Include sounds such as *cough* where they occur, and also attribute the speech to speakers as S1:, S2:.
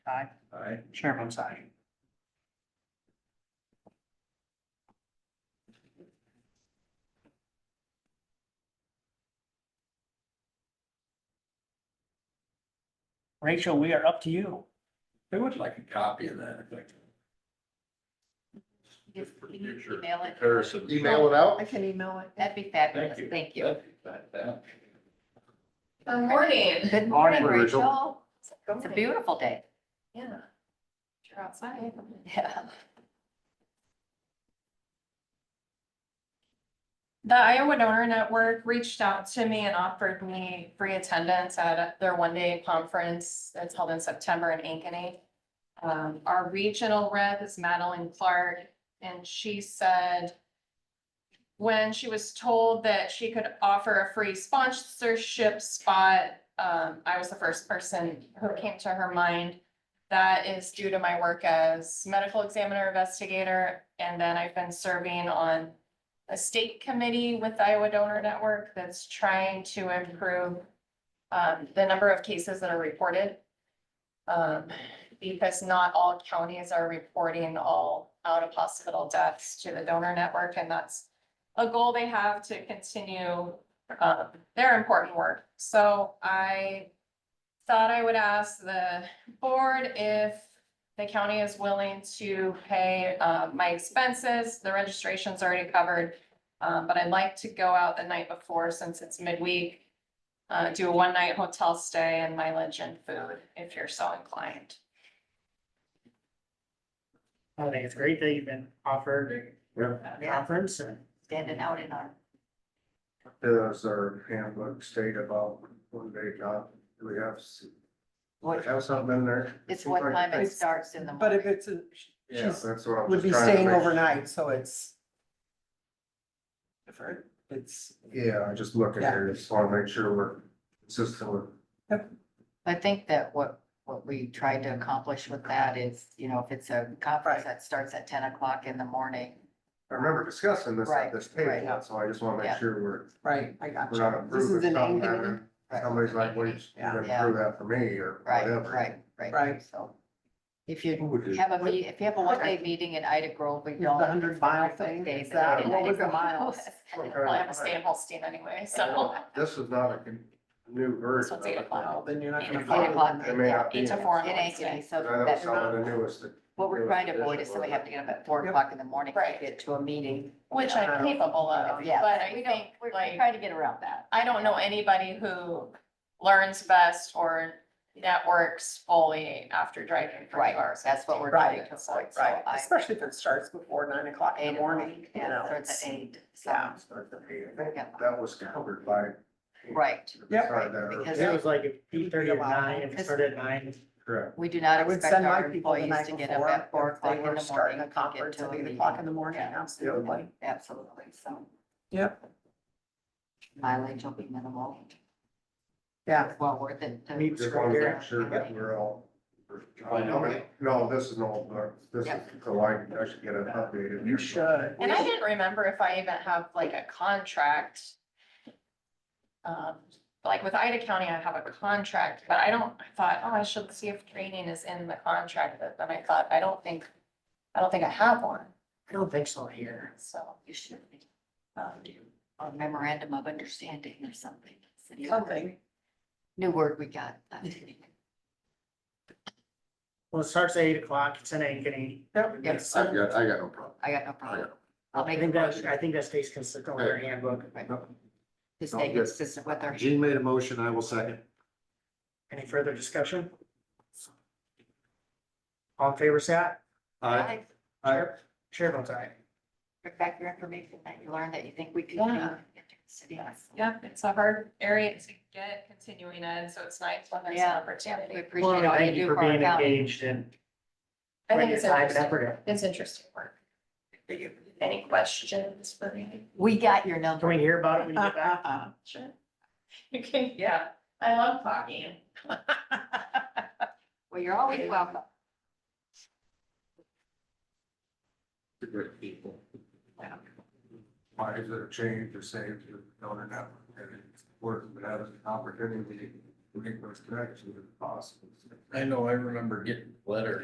S1: Aye.
S2: Aye.
S1: Chair votes aye. Rachel, we are up to you.
S2: I would like a copy of that. if I could.
S3: Just
S2: For
S3: can you
S2: future
S3: email it?
S2: Comparison.
S4: Email it
S5: Oh,
S4: out?
S6: I can email it.
S3: That'd be fabulous,
S2: Thank you.
S3: thank you.
S2: That'd be fantastic.
S7: Good morning.
S3: Good
S4: Morning,
S3: morning,
S4: Rachel.
S3: Rachel. It's
S7: It's
S3: a beautiful day. *laughs*
S7: Yeah. You're outside.
S3: Yeah.
S7: The Iowa Donor Network reached out to me and offered me free attendance at their one-day conference that's held in September in Ankeny. Um, our regional rep is Madeline Clark, and she said when she was told that she could offer a free sponsorship spot, um, I was the first person who came to her mind. That is due to my work as medical examiner investigator, and then I've been serving on a state committee with Iowa Donor Network that's trying to improve um, the number of cases that are reported. Um, because not all counties are reporting all out of hospital deaths to the donor network, and that's a goal they have to continue um, their important work. So I thought I would ask the board if the county is willing to pay uh, my expenses. The registration's already covered. Um, But I'd like to go out the night before since it's midweek. uh, Do a one-night hotel stay and mileage and food if you're so inclined.
S1: I think it's great that you've been offered a
S3: Yeah,
S1: conference and
S3: standing out in our,
S4: Does our handbook state about one day job? Do we have, s- do we
S3: what,
S4: have something in there?
S3: it's what time it
S5: It's-
S3: starts in the
S5: But if
S3: morning.
S5: it's, a-
S4: Yeah,
S5: she's,
S4: that's what I'm.
S5: would
S4: just
S5: be
S4: trying to
S5: staying
S4: make-
S5: overnight, so it's different. It's,
S4: Yeah, I just look at here, just wanna make sure we're consistent with.
S3: I think that what, what we tried to accomplish with that is, you know, if it's a conference
S5: Right.
S3: that starts at ten o'clock in the morning,
S4: I remember discussing this at
S3: Right,
S4: this
S3: right.
S4: table, so I just wanna
S3: Yeah.
S4: make sure we're,
S5: right, I got
S4: we're not
S5: you. This is
S4: approving
S5: an
S4: something.
S5: Ankeny,
S4: that Somebody's like, wait, you
S5: Yeah.
S4: didn't approve that for me or
S3: right,
S4: whatever.
S3: right, right.
S5: Right.
S3: So if you
S2: Who would do-
S3: have a, meet- if you have a one-day meeting in Ida Grove, we
S5: the
S3: don't.
S5: hundred mile thing,
S3: Days
S5: is
S3: in Ida
S5: that, what was the
S3: Grove.
S5: miles?
S4: What kind of-
S7: Well, I have a stay in Holstein anyway, so
S4: This is not a con- new version.
S7: one's eight
S4: of it.
S7: o'clock.
S5: Well, then you're not
S3: *laughs* Eight
S5: gonna
S3: to four
S5: follow
S3: o'clock.
S4: It
S5: them.
S4: may not be.
S7: eight to four on
S3: It ain't, it
S7: Wednesday.
S3: ain't, so
S4: I know
S3: that's
S4: some of the newest.
S3: what we're trying to avoid is somebody having to get up at four o'clock in the morning to
S7: Right.
S3: get to a meeting.
S7: Which I'm capable of,
S3: Yeah,
S7: but I
S3: we don't,
S7: think
S3: we're we're
S7: like.
S3: trying to get around that.
S7: I don't know anybody who learns best or networks fully after driving for
S3: Right,
S7: two hours.
S3: that's what we're trying
S5: Right,
S3: to avoid. So
S5: right,
S3: I-
S5: especially if it starts before nine o'clock
S3: Eight
S5: in the morning, you know.
S3: Starts
S5: it's-
S3: at eight, so,
S5: yeah.
S4: Start the meeting. I think That was covered by.
S3: right,
S5: Yep.
S4: Started that
S3: Because-
S4: early.
S1: it was like eight thirty or nine, it started at nine.
S4: Correct.
S3: we do not
S5: I would
S3: expect
S5: send my
S3: our
S5: people the
S3: employees
S5: night
S3: to get up at four o'clock
S5: before if they
S3: in the
S5: were starting
S3: morning
S5: a
S3: to get
S5: conference
S3: to
S5: at
S3: a
S5: eight o'clock in
S3: meeting.
S5: the morning,
S3: Yeah.
S5: absolutely.
S3: Absolutely, so
S5: Yep,
S3: mileage will be minimal,
S5: yeah.
S3: It's well worth it. to-
S1: Meet
S4: Just wanted to make sure that we're all.
S2: I Oh, know it.
S4: No, this is an old book. This is the line, I should get it updated.
S2: You
S5: should.
S7: And I didn't remember if I even have like a contract. Um, like with Ida County, I have a contract, but I don't, I thought, oh, I should see if training is in the contract, but then I thought, I don't think, I don't think I have one,
S1: I don't think so here.
S7: so.
S3: You should be,
S7: um,
S3: or memorandum of understanding or something. It's a new word.
S5: Something.
S3: New word we got.
S1: Well, it starts at eight o'clock, it's in Ankeny.
S5: Yep.
S3: Yes,
S2: I've got, I got no problem.
S3: I got no
S2: I
S3: problem.
S2: got-
S3: I'll
S1: I
S3: make a
S1: think that,
S3: motion
S1: I think that stays consistent with our handbook.
S3: to stay
S2: Sounds good.
S3: consistent with our.
S2: Gene made a motion, I will second.
S1: Any further discussion? All in favor, say aye.
S2: Aye. Aye.
S1: Chair- Chair votes aye.
S3: Bring back your information that you learned that you think we could. do.
S7: Yeah.
S3: Yes.
S7: Yep, it's a hard area to get continuing in, so it's nice when there's
S3: Yeah.
S7: an opportunity.
S3: We appreciate all you
S1: Thank you
S3: do
S1: for
S3: for our
S1: being
S3: county.
S1: engaged and
S7: I think
S1: putting your
S7: it's
S1: time and
S7: interesting.
S1: effort in.
S7: It's interesting work. Any questions for me?
S3: We got your number.
S1: Can we hear about it when you
S3: *laughs*
S1: get back?
S7: Sure. *laughs* You can, yeah, I love talking.
S3: Well, you're always welcome.
S2: Good people.
S7: Yeah.
S4: Why is it a change or save to donor network? And it's worth it as an opportunity
S8: make those connections if possible.
S4: I know, I remember getting a letter